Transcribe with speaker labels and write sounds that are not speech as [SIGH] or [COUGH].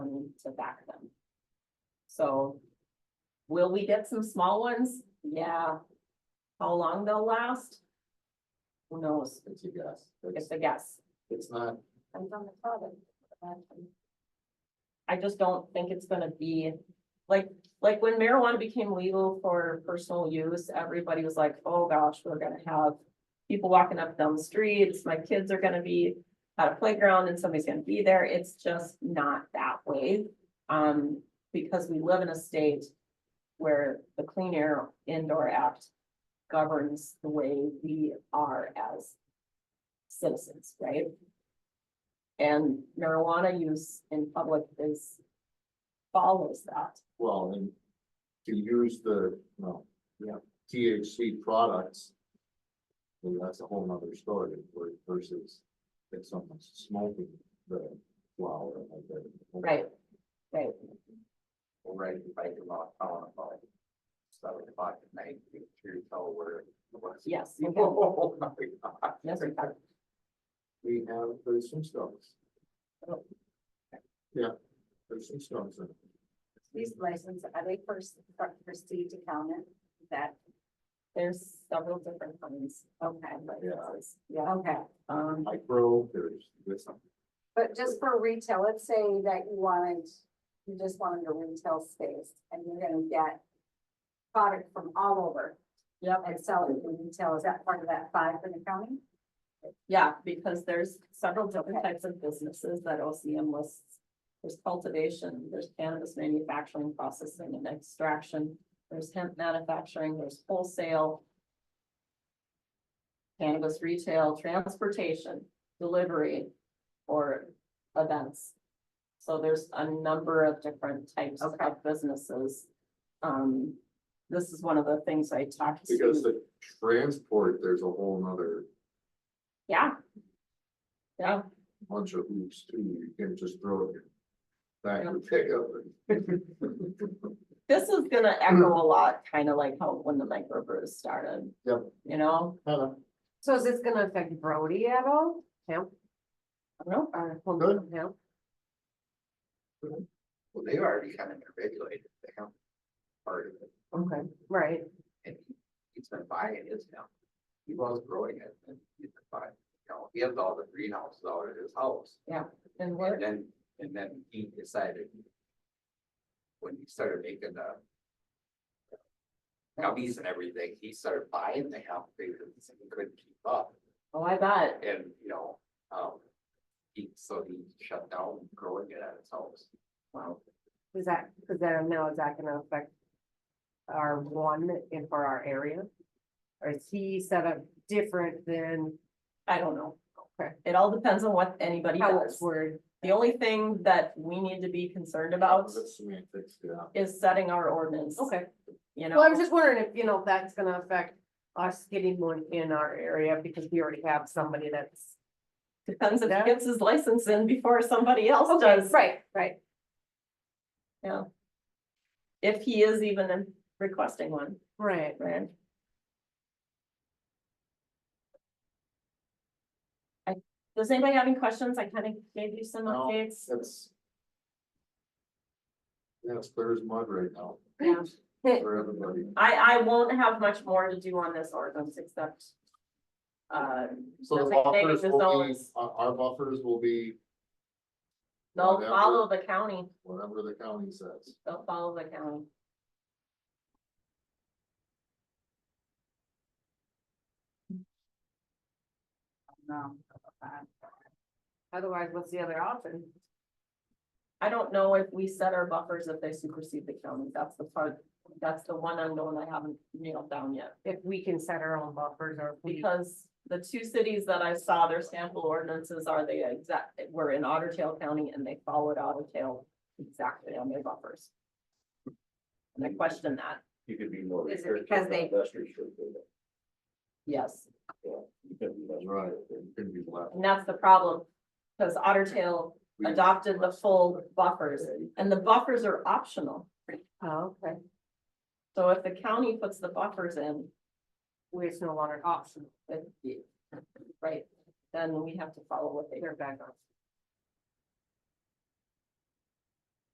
Speaker 1: to back them. So. Will we get some small ones? Yeah. How long they'll last? Who knows?
Speaker 2: It's a guess. It's,
Speaker 1: It's a guess.
Speaker 2: it's not,
Speaker 1: I just don't think it's gonna be, like, like when marijuana became legal for personal use, everybody was like, oh gosh, we're gonna have. People walking up down the streets, my kids are gonna be at a playground and somebody's gonna be there, it's just not that way. Um, because we live in a state where the Clean Air Indoor Act governs the way we are as citizens, right? And marijuana use in public is follows that.
Speaker 2: well, and to use the, no, yeah, THC products. well, that's a whole nother story where- versus if someone's smoking the flower. like the-
Speaker 1: Right, right.
Speaker 3: We're ready to bike around town about seven o'clock at night, you can tell where. [LAUGHS]
Speaker 1: Yes.
Speaker 3: Oh,
Speaker 1: Yes, in fact.
Speaker 2: We have, there's some stones.
Speaker 1: Oh.
Speaker 2: Yeah, there's some stones in it.
Speaker 4: These licenses, are they first, for Steve to comment? Is That,
Speaker 1: There's several different kinds of kind licenses. Yeah,
Speaker 4: okay,
Speaker 1: um,
Speaker 2: Micro, there's, there's some,
Speaker 4: but just for retail, let's say that you wanted, you just wanted a retail space and you're gonna get product from all over
Speaker 1: yep,
Speaker 4: and sell it in retail. Is that part of that five for the county?
Speaker 1: yeah, because there's several different types of businesses that OCM lists. There's cultivation, there's cannabis manufacturing, processing and extraction, there's hemp manufacturing, there's wholesale. Cannabis retail, transportation, delivery, or events. So there's a number of different types of
Speaker 4: Okay.
Speaker 1: businesses. Um, this is one of the things I talked to.
Speaker 2: because the transport, there's a whole nother
Speaker 1: Yeah. Yeah,
Speaker 2: bunch of hoops too, you can just throw it. Back and pick up.
Speaker 5: [LAUGHS]
Speaker 2: and-
Speaker 1: this is gonna echo a lot, kind of like how when the microbrews started.
Speaker 2: Yep.
Speaker 1: You know,
Speaker 2: Hello.
Speaker 5: So is this gonna affect Brody at all? Hemp
Speaker 1: I don't know,
Speaker 5: or
Speaker 2: Good.
Speaker 5: home hemp?
Speaker 3: Well, they've already kind of regulated the hemp part of it,
Speaker 5: Okay. Right,
Speaker 3: and he- he's been buying his hemp. He was growing it and he's been buying, you know, he has all the greenhouses out at his house.
Speaker 1: and we're,
Speaker 3: And then, and then he decided. When he started making the. Gummies and everything, he started buying the hemp because he couldn't keep up
Speaker 1: oh, I bet,
Speaker 3: and, you know, um. He, so he shut down growing it at his house.
Speaker 1: wow,
Speaker 5: is that, is that, now is that gonna affect our one in for our area? Or is he set up different than
Speaker 1: I don't know.
Speaker 5: Okay.
Speaker 1: It all depends on what anybody
Speaker 5: how it's
Speaker 1: does.
Speaker 5: worded?
Speaker 1: The only thing that we need to be concerned about
Speaker 2: That's semantics, yeah.
Speaker 1: is setting our ordinance.
Speaker 5: Okay,
Speaker 1: You
Speaker 5: well, I'm
Speaker 1: know,
Speaker 5: just wondering if, you know, that's gonna affect us getting one in our area because we already have somebody that's.
Speaker 1: depends if
Speaker 5: Yeah.
Speaker 1: he gets his license in before somebody else does.
Speaker 5: Right, right.
Speaker 1: Yeah. If he is even requesting one,
Speaker 5: Right,
Speaker 1: right? I, does anybody have any questions? I kind of gave you some
Speaker 2: No.
Speaker 1: updates.
Speaker 2: That's. Yeah, it's clear as mud right now.
Speaker 1: Yeah.
Speaker 2: [LAUGHS] For everybody.
Speaker 1: I, I won't have much more to do on this ordinance except. Uh,
Speaker 2: So the
Speaker 1: Nothing
Speaker 2: buffers
Speaker 1: negative
Speaker 2: will be,
Speaker 1: zones.
Speaker 2: our, our buffers will be
Speaker 1: they'll
Speaker 2: Whatever.
Speaker 1: follow the county,
Speaker 2: whatever the county says.
Speaker 1: they'll follow the county.
Speaker 4: No.
Speaker 5: otherwise, what's the other option?
Speaker 1: I don't know if we set our buffers if they supersede the county. That's the part, that's the one unknown I haven't nailed down yet.
Speaker 5: If we can set our own buffers or if we.
Speaker 1: Because the two cities that I saw their sample ordinances are the exact, were in Otter Tail County and they followed Otter Tail exactly on their buffers. And I question that,
Speaker 3: You could be more.
Speaker 4: Is it restrictive because they-
Speaker 1: yes.
Speaker 2: That's right. It could be left.
Speaker 1: And that's the problem, because Otter Tail
Speaker 2: We-
Speaker 1: adopted the full buffers, and the buffers are optional.
Speaker 5: Oh, okay,
Speaker 1: So if the county puts the buffers in,
Speaker 5: we it's no longer optional.
Speaker 1: it- right, then we have to follow what they,
Speaker 5: They're back on.